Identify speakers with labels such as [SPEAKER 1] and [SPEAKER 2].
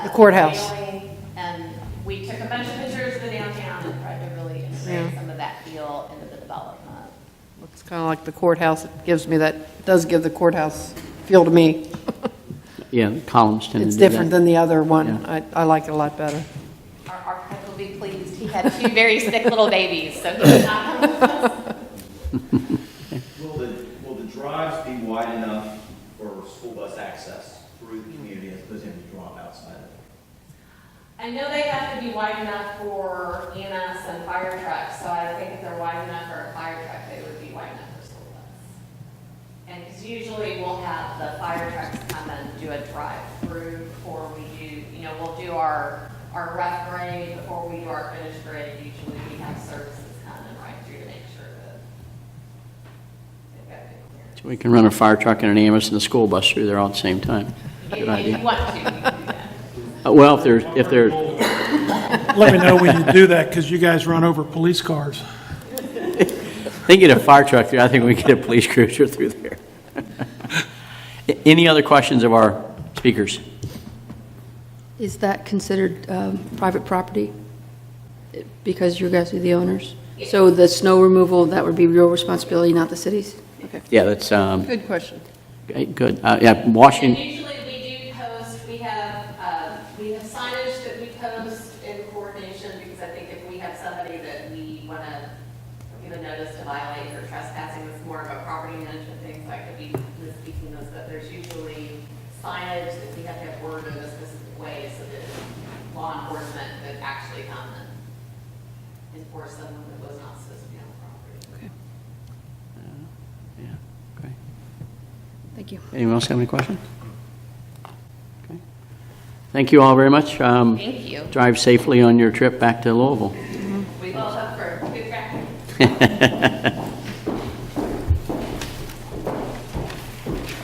[SPEAKER 1] The courthouse.
[SPEAKER 2] family, And we took a bunch of pictures of the downtown and tried to really integrate
[SPEAKER 1] Yeah.
[SPEAKER 2] some of that feel into the development.
[SPEAKER 1] Looks kind of like the courthouse. It gives me that, does give the courthouse feel to me.
[SPEAKER 3] Yeah, columns tend to do that.
[SPEAKER 1] It's different than the other one.
[SPEAKER 3] Yeah.
[SPEAKER 1] I, I like it a lot better.
[SPEAKER 2] Our architect will be pleased. He had two very sick little babies, so he's not going to
[SPEAKER 4] Will the, will the drives be wide enough for school bus access through the community as opposed to having to drop outside of it?
[SPEAKER 2] I know they have to be wide enough for EMS and fire trucks, so I think if they're wide enough for a fire truck, they would be wide enough for school bus. And, because usually we'll have the fire trucks come and do a drive-through before we do, you know, we'll do our, our rough grade before we do our finished grade. Usually we have services come and ride through to make sure that they've got good clearance.
[SPEAKER 3] So We can run a fire truck and an ambulance and a school bus through there all at the same time.
[SPEAKER 2] If-
[SPEAKER 3] Good
[SPEAKER 2] If you
[SPEAKER 3] idea.
[SPEAKER 2] want to, you can do that.
[SPEAKER 3] Uh, Well, if there's, if there,
[SPEAKER 5] Let me know when you do that, because you guys run over police cars.
[SPEAKER 3] they get a fire truck through, I think we get a police cruiser through there. A- Any other questions of our speakers?
[SPEAKER 6] Is that considered um, private property? Because you guys are the owners? So the snow removal, that would be your responsibility, not the city's? Okay.
[SPEAKER 3] Yeah, that's, um,
[SPEAKER 1] Good question.
[SPEAKER 3] okay, good. Uh, Yeah,
[SPEAKER 2] And
[SPEAKER 3] Washington,
[SPEAKER 2] usually we do post, we have, uh, we have signage that we post in coordination, because I think if we have somebody that we want to give a notice to violate or trespassing, it's more of a property management thing, so I could be misspeaking those, but there's usually signage that we have to have worded in a specific way, so that law enforcement could actually come and enforce someone that was not supposed to be on the property.
[SPEAKER 3] yeah, okay.
[SPEAKER 6] Thank you.
[SPEAKER 3] Anyone else have any questions? Okay. Thank you all very much. Um,
[SPEAKER 2] Thank you.
[SPEAKER 3] Drive safely on your trip back to Louisville.
[SPEAKER 2] We all hope for good practice.